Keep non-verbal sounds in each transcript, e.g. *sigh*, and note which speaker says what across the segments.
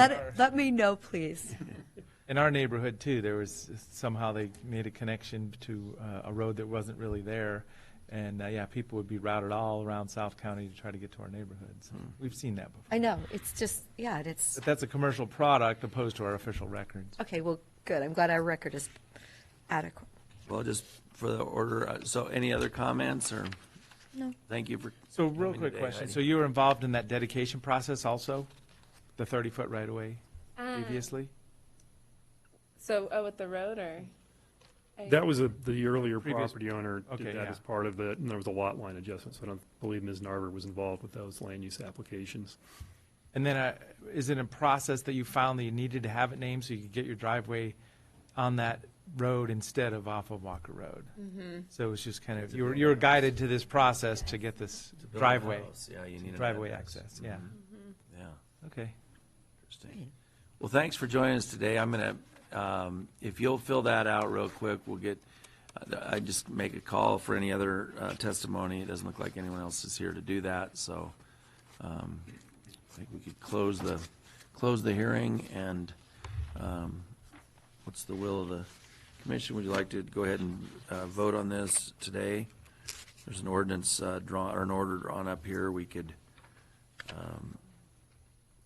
Speaker 1: Let, let me know, please.
Speaker 2: In our neighborhood too, there was somehow they made a connection to uh, a road that wasn't really there. And uh, yeah, people would be routed all around South County to try to get to our neighborhoods.
Speaker 3: Hmm.
Speaker 2: We've seen that before.
Speaker 1: I know, it's just, yeah, it's,
Speaker 2: But that's a commercial product opposed to our official records.
Speaker 1: okay, well, good, I'm glad our record is adequate.
Speaker 3: Well, just for the order, uh, so any other comments or?
Speaker 1: No.
Speaker 3: Thank you for.
Speaker 2: So real
Speaker 3: coming
Speaker 2: quick
Speaker 3: today,
Speaker 2: question.
Speaker 3: Heidi.
Speaker 2: So you were involved in that dedication process also? The 30-foot right-of-way previously?
Speaker 4: So, oh, with the road or?
Speaker 5: That was a, the earlier
Speaker 2: Previous-
Speaker 5: property owner
Speaker 2: Okay,
Speaker 5: did that
Speaker 2: yeah.
Speaker 5: as part of it, and there was a lot line adjustment, so I don't believe Ms. Narver was involved with those land use applications.
Speaker 2: And then uh, is it a process that you found that you needed to have it named so you could get your driveway on that road instead of off of Walker Road? So it was just kind of, you were, you were guided to this process to get this
Speaker 3: To build a
Speaker 2: driveway,
Speaker 3: house, Yeah, you need. an
Speaker 2: driveway
Speaker 3: address.
Speaker 2: access, yeah.
Speaker 3: Mm-hmm. Yeah,
Speaker 2: Okay.
Speaker 3: interesting. Well, thanks for joining us today. I'm going to, if you'll fill that out real quick, we'll get, uh, I just make a call for any other uh, testimony. It doesn't look like anyone else is here to do that, so um, I think we could close the, close the hearing and um, what's the will of the commission? Would you like to go ahead and uh, vote on this today? There's an ordinance uh, drawn, or an order drawn up here. We could, um,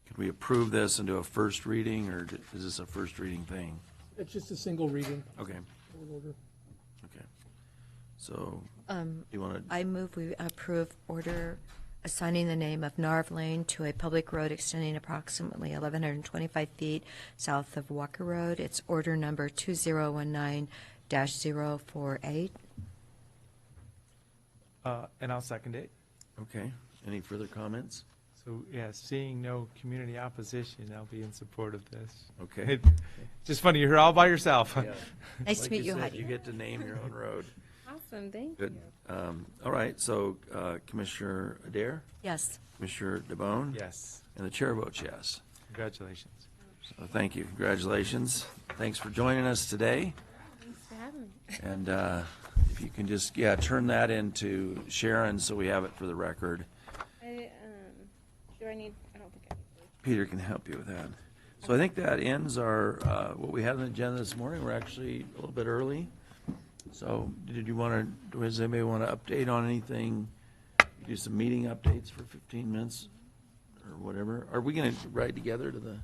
Speaker 3: could we approve this and do a first reading, or is this a first reading thing?
Speaker 6: It's just a single reading.
Speaker 3: Okay, okay. So,
Speaker 1: Um,
Speaker 3: you want to,
Speaker 1: I move we approve order assigning the name of Narv Lane to a public road extending approximately 1,125 feet south of Walker Road. It's order number 2019-048.
Speaker 2: Uh, And I'll second it.
Speaker 3: okay, any further comments?
Speaker 2: So, yeah, seeing no community opposition, I'll be in support of this.
Speaker 3: Okay.
Speaker 2: It- *laughs* Just funny, you're here all by
Speaker 3: *laughs*
Speaker 2: yourself. *laughs*
Speaker 1: Nice to
Speaker 3: Like
Speaker 1: meet you,
Speaker 3: said,
Speaker 1: Heidi.
Speaker 3: You get to name your
Speaker 1: *laughs*
Speaker 3: own road.
Speaker 4: Awesome, thank
Speaker 3: Good.
Speaker 4: you.
Speaker 3: Um, All right, so uh, Commissioner Adair,
Speaker 1: Yes.
Speaker 3: Commissioner DeBonne?
Speaker 2: Yes,
Speaker 3: And the chair votes yes.
Speaker 2: congratulations.
Speaker 3: So thank you, congratulations. Thanks for joining us today.
Speaker 4: Thanks for having me.
Speaker 3: And uh, if you can just, yeah, turn that into Sharon so we have it for the record.
Speaker 4: I, um, do I need, I don't think I need.
Speaker 3: Peter can help you with that. So I think that ends our, uh, what we had on the agenda this morning. We're actually a little bit early. So did you want to, does anybody want to update on anything? Do some meeting updates for 15 minutes or whatever? Are we going to ride together to the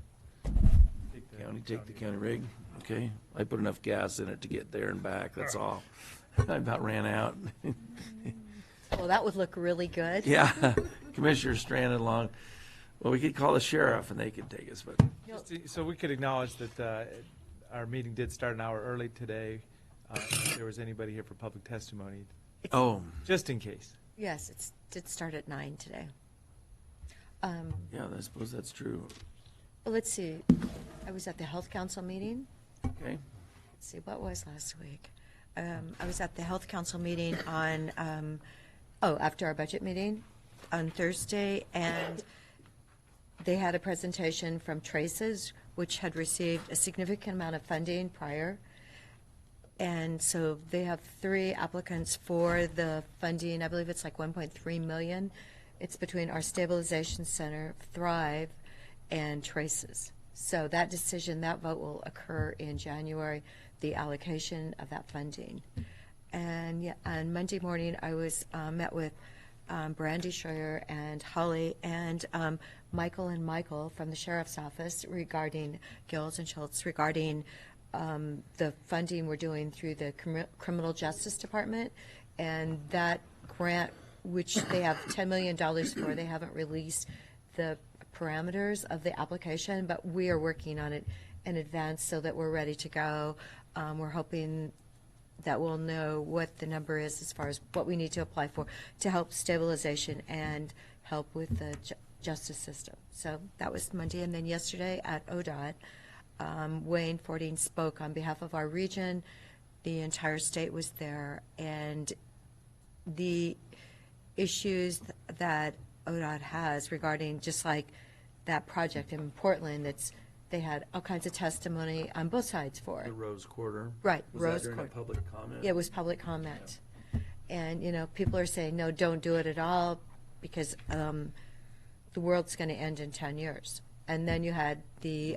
Speaker 3: county, take the county rig? Okay, I put enough gas in it to get there and back, that's all. *laughs* I about ran out. *laughs*
Speaker 1: Well, that would look really good.
Speaker 3: Yeah, *laughs* Commissioner stranded along. Well, we could call the sheriff and they could take us, but
Speaker 2: Just to- So we could acknowledge that uh, our meeting did start an hour early today. Uh, If there was anybody here for public testimony,
Speaker 3: Oh,
Speaker 2: just in case.
Speaker 1: Yes, it did start at nine today. Um,
Speaker 3: yeah, I suppose that's true.
Speaker 1: well, Let's see, I was at the Health Council meeting.
Speaker 3: Okay,
Speaker 1: Let's see, what was last week? Um, I was at the Health Council meeting on, um, oh, after our budget meeting on Thursday, and they had a presentation from Traces, which had received a significant amount of funding prior. And so they have three applicants for the funding, I believe it's like 1.3 million. It's between our stabilization center, Thrive, and Traces. So that decision, that vote will occur in January, the allocation of that funding. And yeah, on Monday morning, I was, uh, met with um, Brandy Schreier and Holly and um, Michael and Michael from the sheriff's office regarding Gills and Schultz regarding um, the funding we're doing through the Crim- criminal justice department and that grant which they have $10 million for they haven't released the parameters of the application but we are working on it in advance so that we're ready to go um, we're hoping that will know what the number is as far as what we need to apply for to help stabilization and help with the ju- justice system. So that was Monday. And then yesterday at ODOT, um, Wayne Fording spoke on behalf of our region. The entire state was there. And the issues th- that ODOT has regarding, just like that project in Portland, that's, they had all kinds of testimony on both sides for it.
Speaker 3: the Rose Quarter.
Speaker 1: Right,
Speaker 3: Was that
Speaker 1: Rose
Speaker 3: during a
Speaker 1: Quarter.
Speaker 3: public comment?
Speaker 1: Yeah, it was public comment. And, you know, people are saying, no, don't do it at all because um, the world's going to end in 10 years. And then you had the